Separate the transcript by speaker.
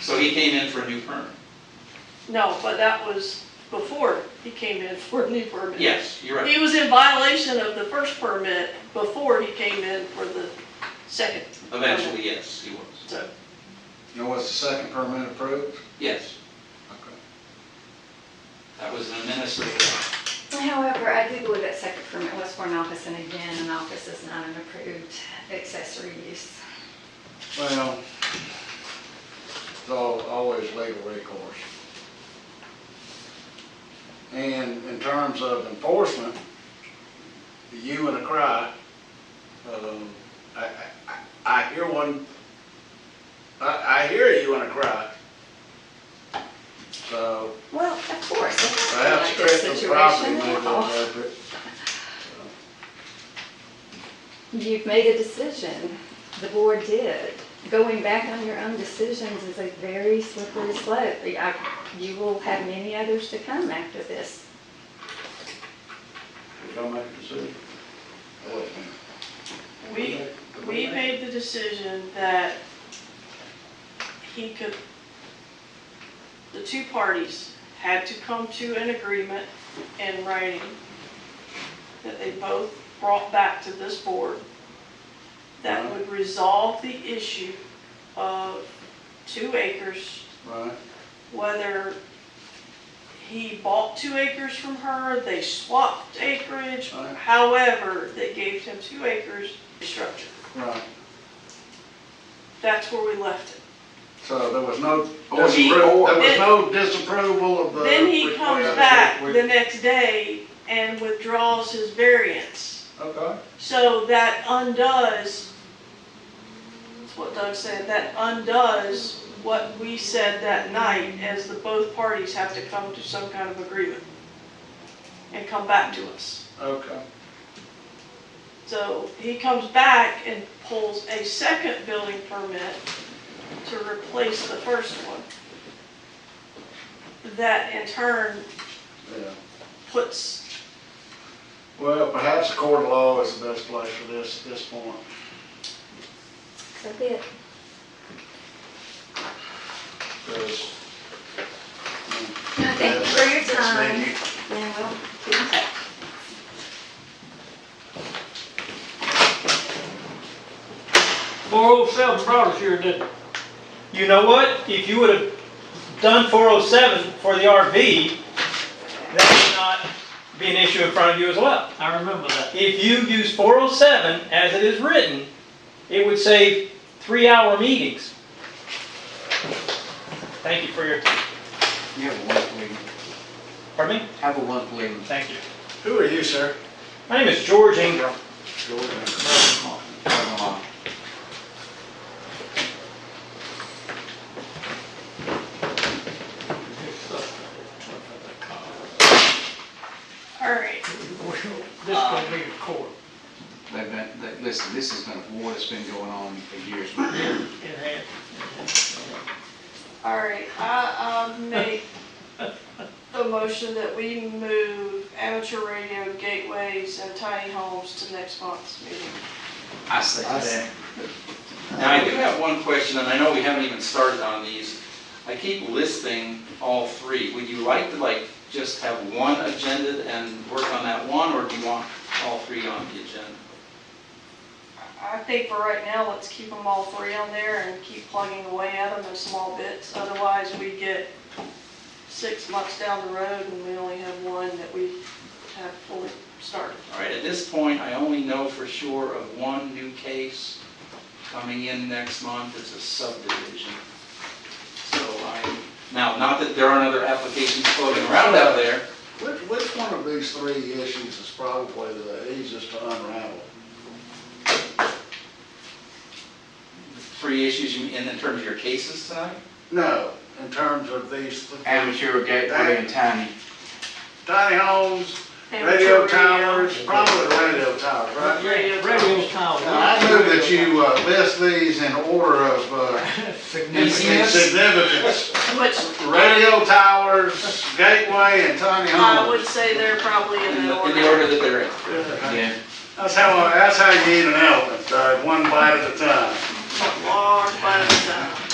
Speaker 1: So he came in for a new permit.
Speaker 2: No, but that was before he came in for a new permit.
Speaker 1: Yes, you're right.
Speaker 2: He was in violation of the first permit before he came in for the second. permit.
Speaker 1: Eventually, yes, he was.
Speaker 2: So,
Speaker 3: You know, was the second permit approved?
Speaker 1: Yes,
Speaker 3: Okay.
Speaker 1: that was an administrative.
Speaker 4: However, I do believe that second permit was for an office, and again, an office is not an approved accessory use.
Speaker 3: Well, it's al- always legal recourse. And in terms of enforcement, you and a cry, um, I, I, I I hear one, I, I hear you and a cry. So
Speaker 4: Well, of course. it's not
Speaker 3: perhaps
Speaker 4: like this
Speaker 3: strip the property
Speaker 4: situation
Speaker 3: may be
Speaker 4: at all.
Speaker 3: appropriate.
Speaker 4: You've made a decision, the board did. Going back on your own decisions is a very slippery slope. I- You will have many others to come after this.
Speaker 3: We don't make a decision. I wouldn't.
Speaker 2: we, we made the decision that he could, the two parties had to come to an agreement in writing that they both brought back to this board that would resolve the issue of two acres
Speaker 3: Right,
Speaker 2: whether he bought two acres from her, they swapped acreage,
Speaker 3: Right.
Speaker 2: however, they gave him two acres structure.
Speaker 3: right.
Speaker 2: That's where we left it.
Speaker 3: So there was no
Speaker 1: Or he-
Speaker 3: disapproval, there was
Speaker 2: then-
Speaker 3: no disapproval of the.
Speaker 2: Then he
Speaker 3: request.
Speaker 2: comes back the next day and withdraws his variance.
Speaker 3: Okay,
Speaker 2: So that undoes, that's what Doug said, that undoes what we said that night as the both parties have to come to some kind of agreement and come back to us.
Speaker 3: okay.
Speaker 2: So he comes back and pulls a second building permit to replace the first one. That in turn
Speaker 3: Yeah.
Speaker 2: puts,
Speaker 3: Well, perhaps the court of law is the best place for this, this point.
Speaker 4: So be it.
Speaker 3: Because.
Speaker 4: Thank you for your time. And we'll be in touch.
Speaker 5: Four oh seven brought us here, didn't it? You know what? If you would have done four oh seven for the RV, that would not be an issue in front of you as well.
Speaker 6: I remember that.
Speaker 5: If you use four oh seven as it is written, it would save three-hour meetings. Thank you for your,
Speaker 7: You have a wonderful evening.
Speaker 5: pardon me?
Speaker 7: Have a wonderful evening.
Speaker 5: Thank you.
Speaker 3: Who are you, sir?
Speaker 5: My name is George Ingram.
Speaker 7: Bye, Mama.
Speaker 2: all right,
Speaker 5: This will be a court.
Speaker 7: They've been, they- listen, this has been a war that's been going on for years.
Speaker 5: It had-
Speaker 2: all right, I, um, make the motion that we move amateur radio gateways and tiny homes to next month's meeting.
Speaker 7: I say that.
Speaker 1: Now, I do have one question, and I know we haven't even started on these. I keep listing all three. Would you like to, like, just have one agenda and work on that one, or do you want all three on the agenda?
Speaker 2: I think for right now, let's keep them all three on there and keep plugging away at them in small bits. Otherwise, we get six months down the road and we only have one that we have fully started.
Speaker 1: All right, at this point, I only know for sure of one new case coming in next month, it's a subdivision. So I, now, not that there aren't other applications floating around out there,
Speaker 3: Which, which one of these three issues is probably the easiest to unravel?
Speaker 1: three issues you- in in terms of your cases tonight?
Speaker 3: No, in terms of these th-
Speaker 7: Amateur gateway and tiny.
Speaker 3: tiny homes, radio towers, probably the radio towers, right?
Speaker 2: Radio
Speaker 6: Radio
Speaker 2: towers.
Speaker 6: tower.
Speaker 3: Now, I move that you uh, list these in order of uh,
Speaker 1: Easiest?
Speaker 3: significance.
Speaker 2: Which
Speaker 3: Radio towers, gateway, and tiny
Speaker 2: I would
Speaker 3: homes.
Speaker 2: say they're probably in
Speaker 1: In
Speaker 2: the
Speaker 1: the
Speaker 2: order.
Speaker 1: in the order that they're in.
Speaker 7: Yeah.
Speaker 3: That's Uh, how, that's how you eat an elephant, Doug, one bite at a time.
Speaker 2: Large by the time.